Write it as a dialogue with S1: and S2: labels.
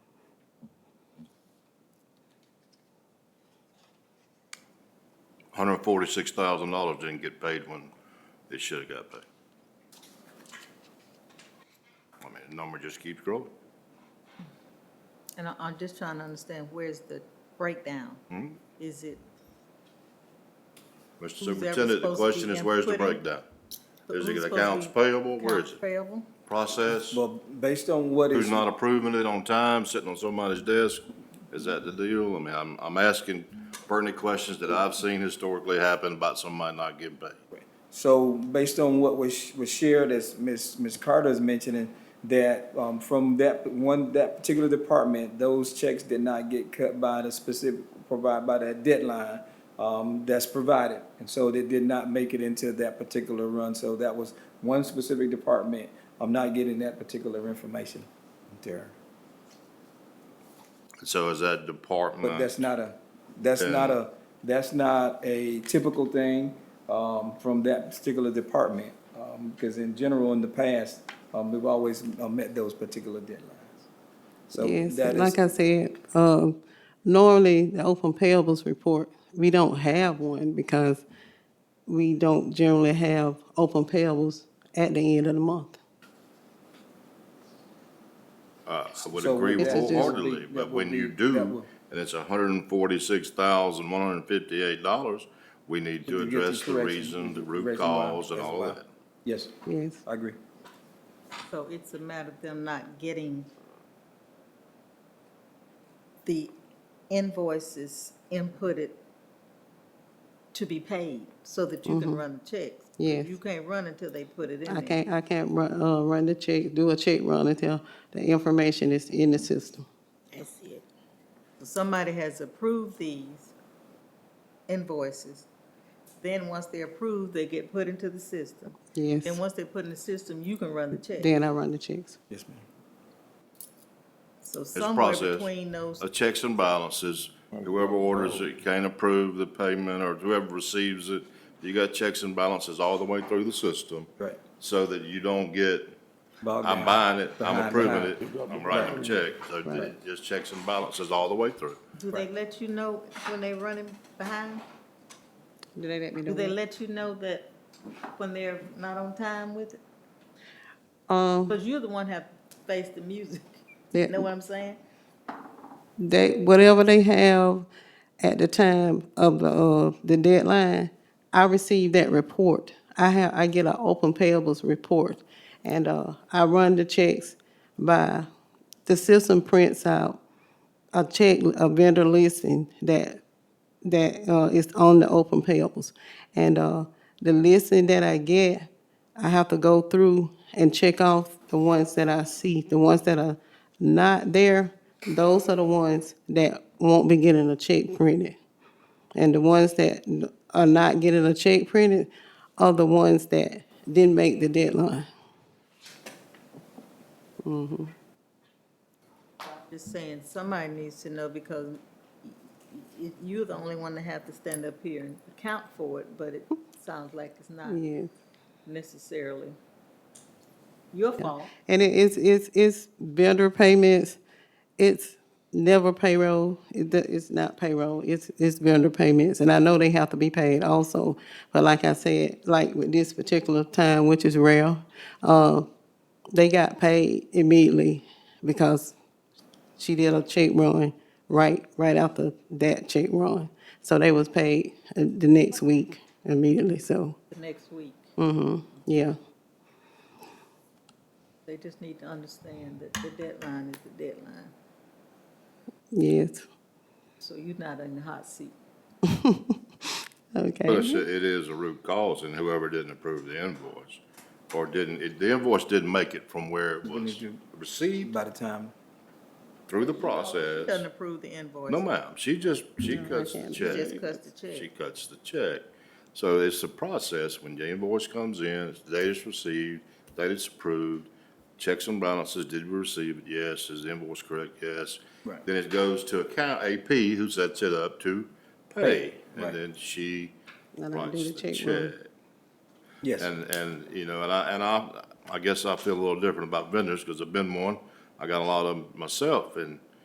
S1: hundred and forty-six thousand dollars didn't get paid when it should have got paid. I mean, the number just keeps growing.
S2: And I, I'm just trying to understand, where's the breakdown?
S1: Hmm?
S2: Is it,
S1: Mr.
S2: ever
S1: Superintendent, the
S2: supposed to
S1: question
S2: be
S1: is, where's the
S2: inputting?
S1: breakdown? Is
S2: who's
S1: it
S2: supposed to
S1: accounts
S2: be-
S1: payable? Where is
S2: accounts
S1: it?
S2: payable?
S1: Process?
S3: Well, based on what is,
S1: Who's not approving it on time, sitting on somebody's desk? Is that the deal? I mean, I'm, I'm asking pertinent questions that I've seen historically happen about somebody not getting paid.
S3: so based on what was, was shared, as Ms., Ms. Carter is mentioning, that, um, from that one, that particular department, those checks did not get cut by the specific, provide by that deadline, um, that's provided. And so they did not make it into that particular run, so that was one specific department, I'm not getting that particular information there.
S1: So is that
S3: But
S1: department,
S3: that's not a, that's
S1: Yeah.
S3: not a, that's not a typical thing, um, from that particular department. Um, because in general, in the past, um, we've always uh, met those particular deadlines. So
S4: Yes,
S3: that
S4: like
S3: is,
S4: I said, um, normally the open payables report, we don't have one because we don't generally have open payables at the end of the month.
S1: uh, I would
S3: So
S1: agree
S3: that would
S4: be-
S1: wholeheartedly,
S3: that
S1: but
S3: would
S1: when
S3: be-
S1: you
S3: that
S1: do,
S3: would-
S1: and it's hundred and forty-six thousand, one hundred and fifty-eight dollars, we need to
S3: To get the
S1: address the
S3: correction-
S1: reason, the root
S3: correction why,
S1: cause and
S3: that's
S1: all
S3: why.
S1: of that.
S3: yes,
S4: Yes,
S3: I agree.
S2: So it's a matter of them not getting the invoices inputted to be paid so that you can run the checks.
S4: Mm-hmm. Yes.
S2: You can't run until they put it in there.
S4: I can't, I can't run, uh, run the check, do a check run until the information is in the system.
S2: That's it. So Somebody has approved these invoices. Then once they're approved, they get put into the system.
S4: Yes,
S2: Then once they're put in the system, you can run the check.
S4: then I run the checks.
S3: Yes, ma'am.
S2: So
S1: a
S2: somewhere
S1: process.
S2: between those,
S1: uh, checks and balances. Whoever orders it can't approve the payment, or whoever receives it, you got checks and balances all the way through the system.
S3: Right.
S1: So that you don't get,
S3: Bogged
S1: I'm
S3: down.
S1: buying it, I'm
S3: Behind,
S1: approving
S3: behind.
S1: it, I'm writing a check. So ju-
S3: Right.
S1: just checks and balances all the way through.
S2: do they let you know when they running behind?
S4: Do they let me
S2: Do they let you know that when they're not on time with it?
S4: Um,
S2: Because you're the one have faced the music.
S4: Yeah.
S2: Know what I'm saying?
S4: they, whatever they have at the time of the, uh, the deadline, I receive that report. I have, I get an open payables report, and, uh, I run the checks by, the system prints out a check, a vendor listing that, that, uh, is on the open payables. And, uh, the listing that I get, I have to go through and check off the ones that I see. The ones that are not there, those are the ones that won't be getting a check printed. And the ones that are not getting a check printed are the ones that didn't make the deadline.
S2: Just saying, somebody needs to know because y- y- you're the only one that have to stand up here and account for it, but it sounds like it's not
S4: Yes.
S2: necessarily your fault.
S4: And it is, it's, it's vendor payments, it's never payroll, it, the- it's not payroll, it's, it's vendor payments. And I know they have to be paid also, but like I said, like with this particular time, which is rare, uh, they got paid immediately because she did a check run right, right after that check run. So they was paid uh, the next week immediately, so,
S2: The next week,
S4: Mm. yeah.
S2: they just need to understand that the deadline is the deadline.
S4: Yes,
S2: So you're not in the hot seat.
S4: okay.
S1: But
S2: Mm-hmm.
S1: it's, a- it is a root cause, and whoever didn't approve the invoice, or didn't, it- the invoice didn't make it from where it was
S3: you-
S1: received
S3: By the time,
S1: through the
S2: Doesn't
S1: process.
S2: approve the invoice.
S1: No, ma'am, she just, she cuts
S4: can't.
S1: the
S2: She
S1: check.
S2: just cuts the check.
S1: She cuts the check. So it's a process, when the invoice comes in, it's the date it's received, date it's approved, checks and balances, did we receive it? Yes, is the invoice correct? Yes.
S3: Right.
S1: Then it goes to account AP, who sets it up to pay,
S3: Right.
S1: and then she
S4: Then I do
S1: writes
S4: the
S1: the
S4: check
S1: check.
S4: run.
S3: yes,
S1: And, and, you know, and I, and I, I guess I feel a little different about vendors, because I've been one. I got a lot of them myself, and